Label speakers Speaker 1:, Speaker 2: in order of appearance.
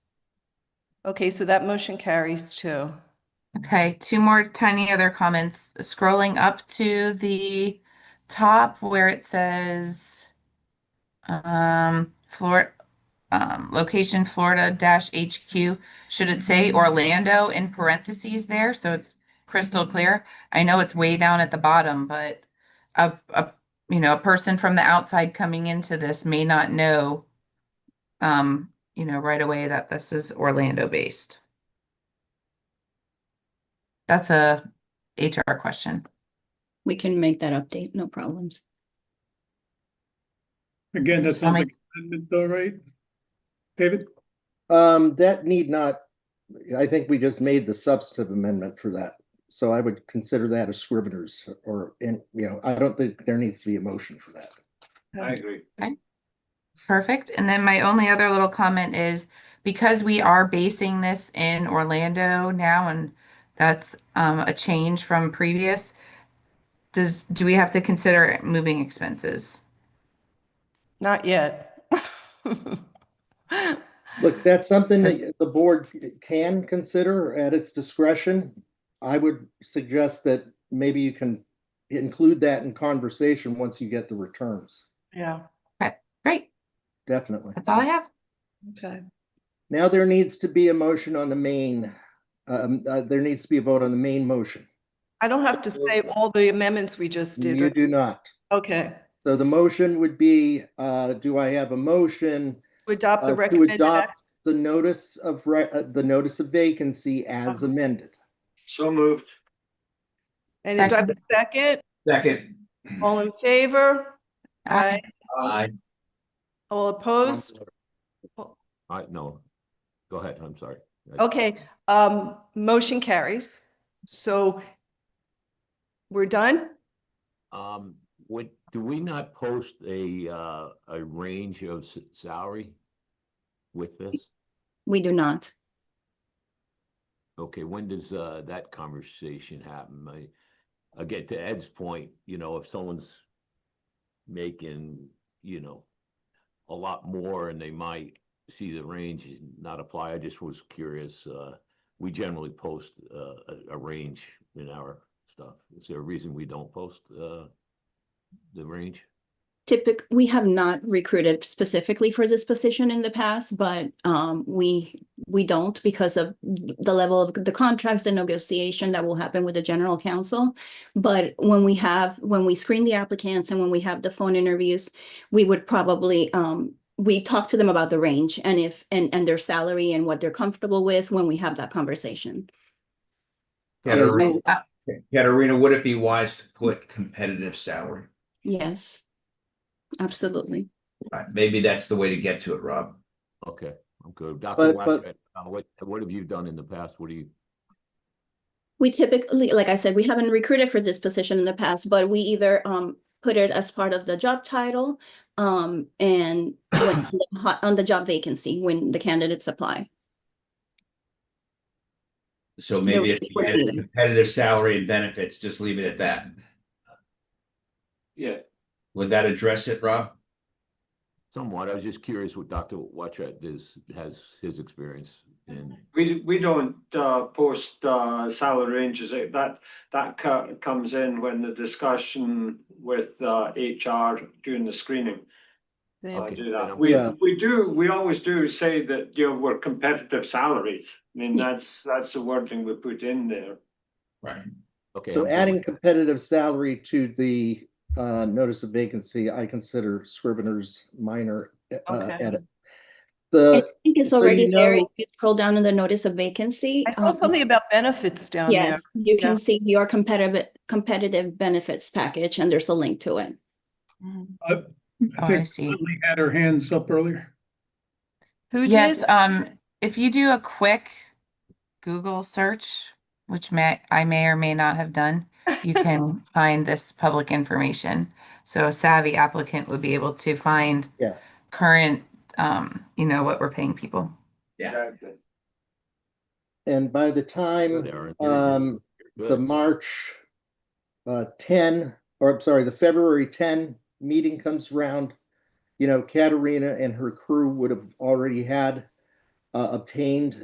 Speaker 1: Okay, so that motion carries too.
Speaker 2: Okay, two more tiny other comments. Scrolling up to the top where it says um Flor um location Florida dash HQ. Should it say Orlando in parentheses there? So it's crystal clear. I know it's way down at the bottom, but a a you know, a person from the outside coming into this may not know um, you know, right away that this is Orlando based. That's a HR question.
Speaker 3: We can make that update, no problems.
Speaker 4: Again, that
Speaker 2: So
Speaker 4: sounds
Speaker 2: my-
Speaker 4: like an amendment though, right? David,
Speaker 5: Um, that need not, I think we just made the substantive amendment for that. So I would consider that a scrivener's or, and, you know, I don't think there needs to be a motion for that.
Speaker 6: I agree.
Speaker 2: Perfect. And then my only other little comment is because we are basing this in Orlando now, and that's um, a change from previous, does, do we have to consider moving expenses?
Speaker 1: Not yet.
Speaker 5: Look, that's something that the board can consider at its discretion. I would suggest that maybe you can include that in conversation once you get the returns,
Speaker 1: Yeah,
Speaker 2: Great.
Speaker 5: definitely.
Speaker 2: That's all I have.
Speaker 1: okay.
Speaker 5: Now there needs to be a motion on the main, um, uh, there needs to be a vote on the main motion.
Speaker 1: I don't have to say all the amendments we just did.
Speaker 5: You
Speaker 1: right?
Speaker 5: do not.
Speaker 1: Okay,
Speaker 5: So the motion would be, uh, do I have a motion
Speaker 1: to adopt
Speaker 5: uh,
Speaker 1: the
Speaker 5: to
Speaker 1: recommended
Speaker 5: adopt
Speaker 1: act-
Speaker 5: the notice of, re- uh, the notice of vacancy as
Speaker 1: Uh-huh.
Speaker 5: amended?
Speaker 6: So moved.
Speaker 1: and do I have a second?
Speaker 6: Second.
Speaker 1: All in favor?
Speaker 2: Aye.
Speaker 1: Aye. All opposed?
Speaker 7: I, no. Go ahead, I'm sorry. I-
Speaker 1: Okay, um, motion carries. So we're done?
Speaker 7: Um, what, do we not post a, uh, a range of s- salary with this?
Speaker 3: We do not.
Speaker 7: Okay, when does, uh, that conversation happen? I, again, to Ed's point, you know, if someone's making, you know, a lot more and they might see the range and not apply, I just was curious, uh, we generally post, uh, a, a range in our stuff. Is there a reason we don't post, uh, the range?
Speaker 3: Typic, we have not recruited specifically for this position in the past, but um, we, we don't because of the level of the contracts, the negotiation that will happen with the general counsel. But when we have, when we screen the applicants and when we have the phone interviews, we would probably um, we talk to them about the range and if, and, and their salary and what they're comfortable with when we have that conversation.
Speaker 6: Katerina,
Speaker 3: Oh,
Speaker 6: Katerina, would it be wise to put competitive salary?
Speaker 3: Yes, absolutely.
Speaker 6: Uh, Maybe that's the way to get to it, Rob.
Speaker 7: Okay, I'm good. Dr.
Speaker 5: But- but-
Speaker 7: Wacker, uh, what, what have you done in the past? What do you,
Speaker 3: We typically, like I said, we haven't recruited for this position in the past, but we either um put it as part of the job title um and when- on the ho- on the job vacancy when the candidates apply.
Speaker 6: So
Speaker 3: No,
Speaker 6: maybe it's
Speaker 3: it would be.
Speaker 6: competitive salary and benefits, just leave it at that.
Speaker 8: Yeah,
Speaker 6: Would that address it, Rob?
Speaker 7: somewhat, I was just curious what Dr. Watchet is, has his experience in.
Speaker 8: we, we don't uh, post uh, salary ranges. It- That, that co- comes in when the discussion with uh, HR during the screening.
Speaker 1: Then-
Speaker 5: Oh,
Speaker 8: I
Speaker 7: Okay.
Speaker 8: do that.
Speaker 7: then
Speaker 8: We,
Speaker 5: Yeah.
Speaker 8: we do, we always do say that, you know, we're competitive salaries. I mean,
Speaker 3: Yeah.
Speaker 8: that's, that's the wording we put in there.
Speaker 6: Right.
Speaker 7: Okay. I'm
Speaker 5: So
Speaker 7: good
Speaker 5: adding
Speaker 7: with that.
Speaker 5: competitive salary to the, uh, notice of vacancy, I consider scrivener's minor, uh,
Speaker 1: Okay.
Speaker 5: edit.
Speaker 3: I
Speaker 5: The,
Speaker 3: think it's
Speaker 5: Uh, so you
Speaker 3: already there. If
Speaker 5: know-
Speaker 3: you scroll down in the notice of vacancy.
Speaker 1: I saw
Speaker 3: um,
Speaker 1: something about benefits down there.
Speaker 3: Yes, you
Speaker 1: Yeah.
Speaker 3: can see your competitive competitive benefits package and there's a link to it.
Speaker 1: Mhm.
Speaker 2: Oh,
Speaker 4: I
Speaker 2: I
Speaker 4: think
Speaker 2: see.
Speaker 4: Lee had her hands up earlier.
Speaker 1: Who
Speaker 2: Yes,
Speaker 1: did?
Speaker 2: um, if you do a quick Google search, which may, I may or may not have done, you can find this public information. So a savvy applicant would be able to find
Speaker 5: Yeah.
Speaker 2: current, um, you know, what we're paying people.
Speaker 6: Yeah.
Speaker 8: Exactly.
Speaker 5: and by the
Speaker 7: Good,
Speaker 5: time,
Speaker 7: Aaron. You're good.
Speaker 5: um,
Speaker 7: You're
Speaker 5: the
Speaker 7: good.
Speaker 5: March uh, 10, or I'm sorry, the February 10 meeting comes round, you know, Katerina and her crew would have already had uh, obtained